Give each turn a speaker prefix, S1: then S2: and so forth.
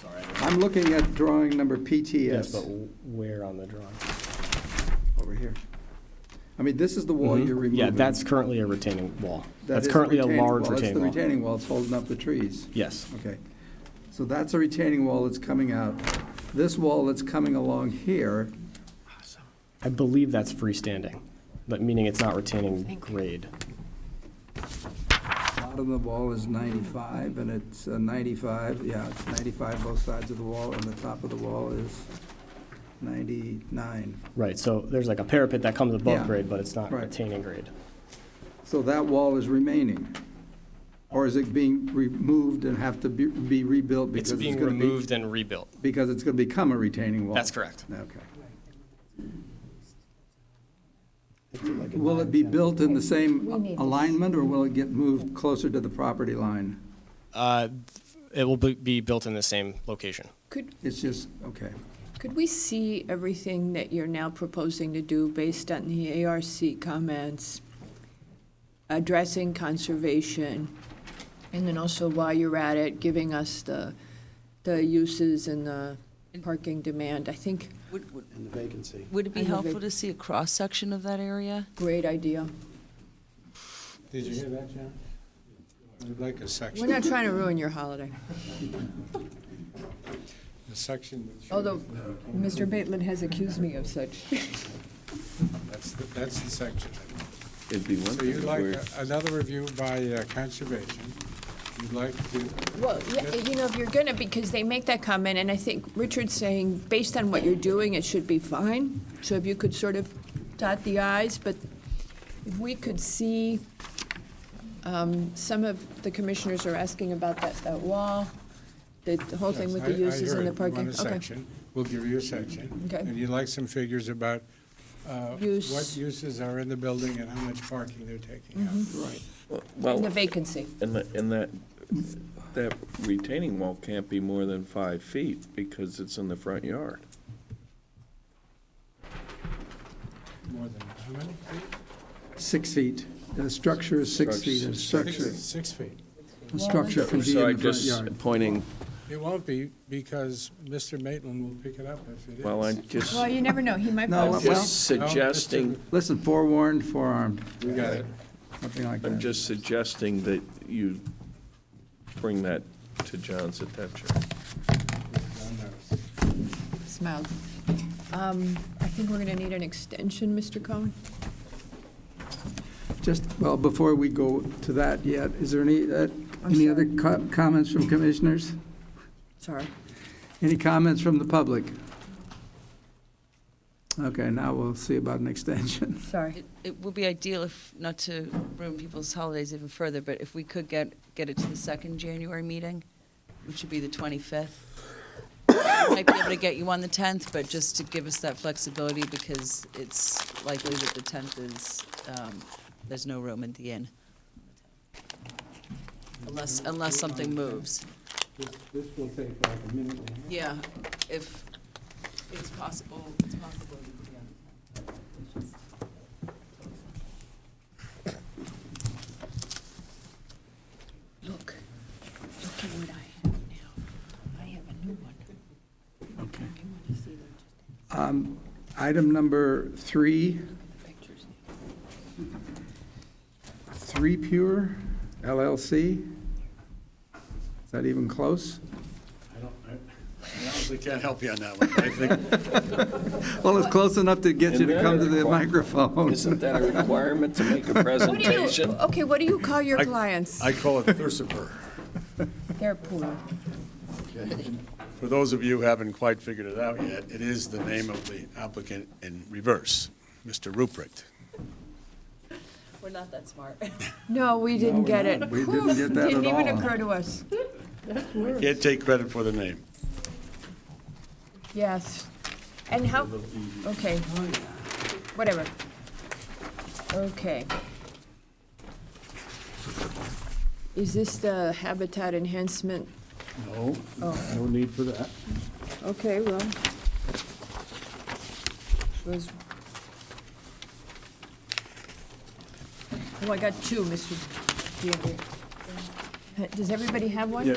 S1: Sorry. I don't-
S2: I'm looking at drawing number
S3: Yes, but
S2: PTS
S3: where on the drawing?
S2: over here. I mean, this is the wall you're removing.
S3: Mm-hmm. Yeah, that's currently a retaining wall.
S2: That
S3: That's
S2: is
S3: currently a
S2: retaining
S3: large
S2: wall. That's
S3: retaining
S2: the
S3: wall.
S2: retaining wall, it's holding up the trees.
S3: Yes,
S2: Okay. So that's a retaining wall that's coming out. This wall that's coming along here,
S3: I believe that's freestanding, but meaning it's not retaining
S4: Thank you.
S3: grade.
S2: bottom of the wall is 95, and it's uh, 95, yeah, it's 95 both sides of the wall, and the top of the wall is 99.
S3: Right, so there's like a parapet that comes above
S2: Yeah.
S3: grade, but it's not
S2: Right.
S3: retaining grade.
S2: So that wall is remaining? Or is it being removed and have to be- be rebuilt because
S3: It's
S2: it's
S3: being
S2: going to be?
S3: removed and rebuilt.
S2: Because it's going to become a retaining wall?
S3: That's correct.
S2: Okay. Will it be built in the same
S4: We need this.
S2: alignment, or will it get moved closer to the property line?
S3: Uh, It will be- be built in the same location.
S4: Could,
S2: It's just, okay.
S4: could we see everything that you're now proposing to do based on the ARC comments, addressing conservation, and then also while you're at it, giving us the, the uses and the parking demand? I think,
S5: Would, would,
S6: and the vacancy.
S5: would it
S4: I
S5: be
S4: know they-
S5: helpful to see a cross-section of that area?
S4: great idea.
S6: Did you hear that, John? I'd like a
S4: We're
S6: section,
S4: not trying to ruin your holiday.
S6: a section that shows,
S4: Although, Mr. Maitland has accused me of such.
S6: that's, the- that's the section.
S7: It'd be one
S6: So
S7: thing
S6: you'd
S7: if
S6: like
S7: we're,
S6: a- another review by uh, conservation, you'd like to, uh,
S4: Well, yeah, you know, if you're gonna, because they make that comment, and I think Richard's saying, based on what you're doing, it should be fine. So if you could sort of dot the i's, but if we could see, um, some of the commissioners are asking about that, that wall, the the whole thing
S6: yes,
S4: with
S6: I, I
S4: the uses
S6: heard
S4: and the
S6: you
S4: parking.
S6: want a
S4: Okay.
S6: section, we'll give you a section.
S4: Okay.
S6: And you'd like some figures about, uh,
S4: Use.
S6: what uses are in the building and how much parking they're taking up.
S4: Mm-hmm.
S2: Right.
S4: And
S7: well,
S4: The vacancy.
S7: and that, and that, that retaining wall can't be more than five feet because it's in the front yard.
S6: More than, how many?
S2: Six feet. The structure is six feet, and
S6: Six-
S2: structure,
S6: Six feet.
S2: a structure can be
S7: So I'm
S2: in the front
S7: just
S2: yard.
S7: pointing,
S6: It won't be, because Mr. Maitland will pick it up if it is.
S7: well, I'm just,
S4: Well, you never know, he might.
S2: No,
S4: vote.
S2: well-
S7: just suggesting,
S2: Listen, forewarned, forearmed,
S6: We got it.
S2: something like
S7: I'm
S2: that.
S7: just suggesting that you bring that to John's attention.
S6: John knows.
S4: Smiled. Um, I think we're gonna need an extension, Mr. Cohen.
S2: Just, well, before we go to that yet, is there any, uh, any other co- comments from commissioners?
S4: Sorry.
S2: Any comments from the public? Okay, now we'll see about an extension.
S4: Sorry.
S5: It, it would be ideal if, not to ruin people's holidays even further, but if we could get, get it to the second January meeting, which would be the 25th. Might be able to get you on the 10th, but just to give us that flexibility because it's likely that the 10th is, um, there's no room at the inn. Unless, unless something moves.
S6: This will take like a minute and a half.
S5: Yeah, if it's possible, it's possible.
S4: Look, look at what I have now. I have a new one.
S2: Okay.
S4: I want to see them
S2: Um, Item number three,
S4: just pictures.
S2: Three Pure LLC. Is that even close?
S8: I don't, I I honestly can't help you on that one. I think,
S2: Well, it's close enough to get you
S7: Isn't
S2: to
S7: that
S2: come to
S7: a
S2: the
S7: requir-
S2: microphone.
S7: Isn't that a requirement to make a
S4: What do you,
S7: presentation?
S4: okay, what do you call your
S8: I-
S4: clients?
S8: I call it Thursiper.
S4: They're poor.
S8: For those of you who haven't quite figured it out yet, it is the name of the applicant in reverse, Mr. Ruprecht.
S5: We're not that smart.
S4: No, we didn't
S2: we're
S4: get
S2: not.
S4: it.
S2: We didn't
S4: Oof,
S2: get that
S4: Didn't
S2: at
S4: even
S2: all.
S4: occur to us.
S8: Can't take credit for the name.
S4: Yes. And how, okay, whatever. Okay. Is this the habitat enhancement?
S8: No,
S4: Oh.
S8: no need for that.
S4: Okay, well. Was. Oh, I got two, Mr. DeAndrea. Does everybody have one?
S8: Yeah,